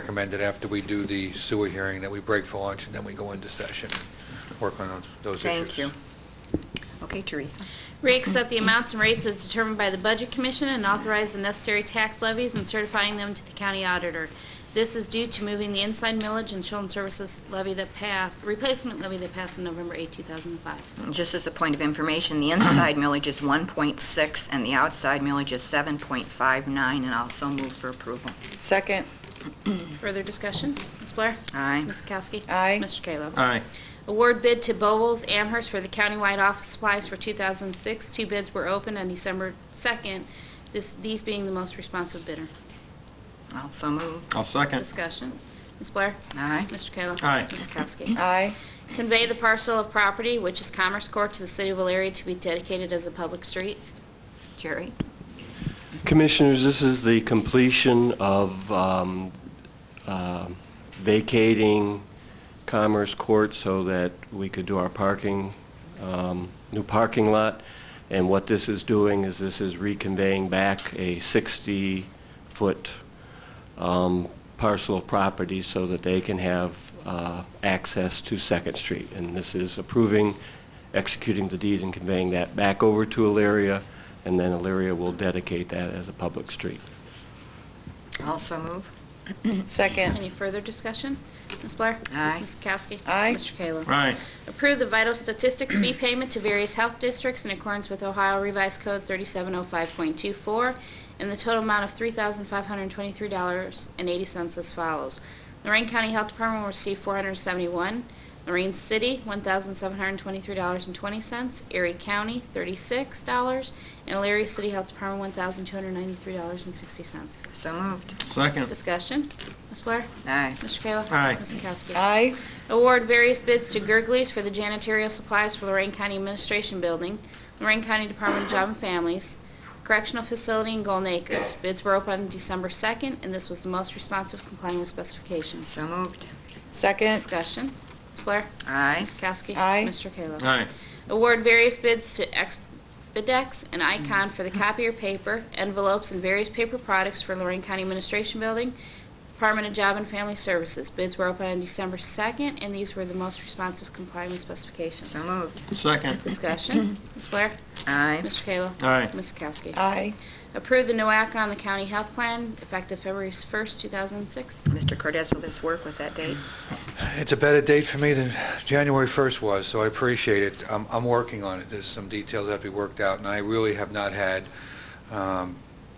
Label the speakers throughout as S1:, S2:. S1: recommended after we do the sewer hearing that we break for lunch and then we go into session and work on those issues.
S2: Thank you. Okay, Teresa.
S3: Reaccept the amounts and rates as determined by the Budget Commission and authorize the necessary tax levies and certifying them to the county auditor. This is due to moving the inside millage and children's services levy that passed, replacement levy that passed on November 8, 2005.
S2: Just as a point of information, the inside millage is 1.6 and the outside millage is 7.59, and also move for approval.
S4: Second,
S3: Further discussion? Ms. Blair?
S2: Aye.
S3: Ms. Kowski?
S4: Aye.
S3: Mr. Kayla?
S5: Aye.
S3: Award bid to Bowles Amherst for the countywide office supplies for 2006. Two bids were opened on December 2nd, this- these being the most responsive bidder.
S2: Also move.
S5: I'll second.
S3: Discussion. Ms. Blair?
S2: Aye.
S3: Mr. Kayla?
S5: Aye.
S3: Ms. Kowski?
S4: aye.
S3: Convey the parcel of property, which is Commerce Court, to the city of Elyria to be dedicated as a public street.
S2: Jerry?
S6: Commissioners, this is the completion of um, um, vacating Commerce Court so that we could do our parking, um, new parking lot. And what this is doing is this is reconveying back a 60-foot um, parcel of property so that they can have uh, access to Second Street. And this is approving, executing the deed and conveying that back over to Elyria, and then Elyria will dedicate that as a public street.
S2: Also move.
S4: Second,
S3: Any further discussion? Ms. Blair?
S2: Aye.
S3: Ms. Kowski?
S4: Aye.
S3: Mr. Kayla?
S5: Aye.
S3: Approve the vital statistics fee payment to various health districts in accordance with Ohio Revised Code 3705.24 in the total amount of $3,523.80 as follows. Lorraine County Health Department will receive 471, Lorraine City $1,723.20, Erie County $36, and Elyria City Health Department $1,293.60.
S2: So moved.
S5: Second.
S3: Discussion. Ms. Blair?
S2: Aye.
S3: Mr. Kayla?
S5: Aye.
S3: Ms. Kowski?
S4: aye.
S3: Award various bids to Gerglies for the janitorial supplies for Lorraine County Administration Building, Lorraine County Department of Job and Families, Correctional Facility in Golden Acres. Bids were open on December 2nd, and this was the most responsive complying with specifications.
S2: So moved.
S4: Second,
S3: Discussion. Ms. Blair?
S2: Aye.
S3: Ms. Kowski?
S4: Aye.
S3: Mr. Kayla?
S5: Aye.
S3: Award various bids to Expedex and Icon for the
S2: Mm-hmm.
S3: copier paper, envelopes, and various paper products for Lorraine County Administration Building, Department of Job and Family Services. Bids were open on December 2nd, and these were the most responsive complying with specifications.
S2: So moved.
S5: Second.
S3: Discussion. Ms. Blair?
S2: Aye.
S3: Mr. Kayla?
S5: Aye.
S3: Ms. Kowski?
S4: aye.
S3: Approve the NOAC on the County Health Plan effective February 1st, 2006.
S2: Mr. Cordes, will this work with that date?
S1: It's a better date for me than January 1st was, so I appreciate it. I'm, I'm working on it. There's some details that have to be worked out, and I really have not had um,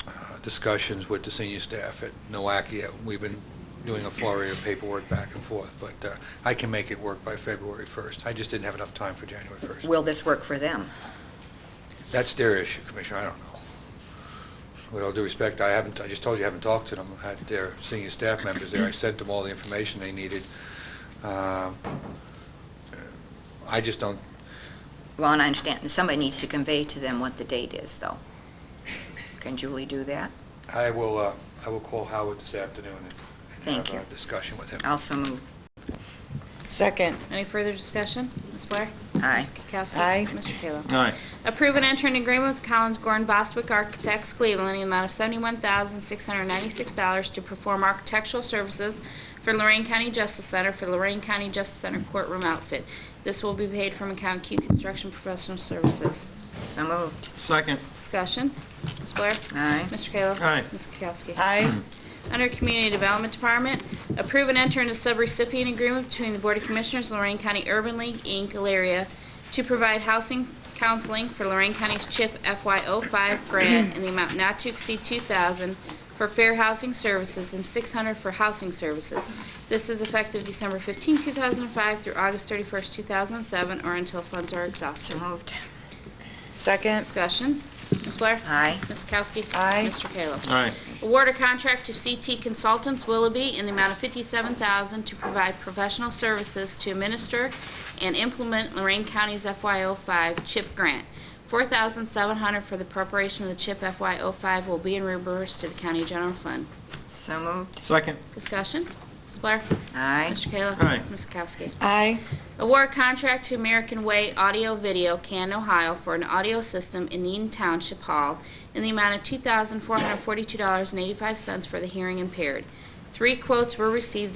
S1: uh, discussions with the senior staff at NOAC yet. We've been doing a flurry of paperwork back and forth, but uh, I can make it work by February 1st. I just didn't have enough time for January 1st.
S2: Will this work for them?
S1: That's their issue, Commissioner, I don't know. With all due respect, I haven't, I just told you I haven't talked to them, I had their senior staff members there, I sent them all the information they needed. Um, I just don't,
S2: Well, and I understand, and somebody needs to convey to them what the date is, though. Can Julie do that?
S1: I will, uh, I will call Howard this afternoon and- and
S2: Thank
S1: have
S2: you.
S1: a discussion with him.
S2: Also move.
S4: Second,
S3: Any further discussion? Ms. Blair?
S2: Aye.
S3: Ms. Kowski?
S4: Aye.
S3: Mr. Kayla?
S5: Aye.
S3: Approve and enter an agreement with Collins Gorn Bostwick Architects Cleveland in the amount of $71,696 to perform architectural services for Lorraine County Justice Center for Lorraine County Justice Center courtroom outfit. This will be paid from account Q Construction Professional Services.
S2: So moved.
S5: Second.
S3: Discussion. Ms. Blair?
S2: Aye.
S3: Mr. Kayla?
S5: Aye.
S3: Ms. Kowski?
S4: aye.
S3: Under Community Development Department, approve and enter into subrecipient agreement between the Board of Commissioners, Lorraine County Urban League, Inc., Elaria, to provide housing counseling for Lorraine County's CHIP FY05 grant in the amount not to exceed 2000 for fair housing services and 600 for housing services. This is effective December 15, 2005 through August 31, 2007, or until funds are
S2: So
S3: exhausted.
S2: moved.
S4: Second,
S3: Discussion. Ms. Blair?
S2: Aye.
S3: Ms. Kowski?
S4: Aye.
S3: Mr. Kayla?
S5: Aye.
S3: Award a contract to CT Consultants Willoughby in the amount of 57000 to provide professional services to administer and implement Lorraine County's FY05 CHIP grant. 4700 for the preparation of the CHIP FY05 will be reimbursed to the County General Fund.
S2: So moved.
S5: Second.
S3: Discussion? Ms. Blair?
S2: Aye.
S3: Mr. Kayla?
S5: Aye.
S3: Ms. Kowski?
S4: aye.
S3: Award contract to American Way Audio Video, Canton, Ohio for an audio system in Eaton Township Hall in the amount of $2,442.85 for the hearing impaired. Three quotes were received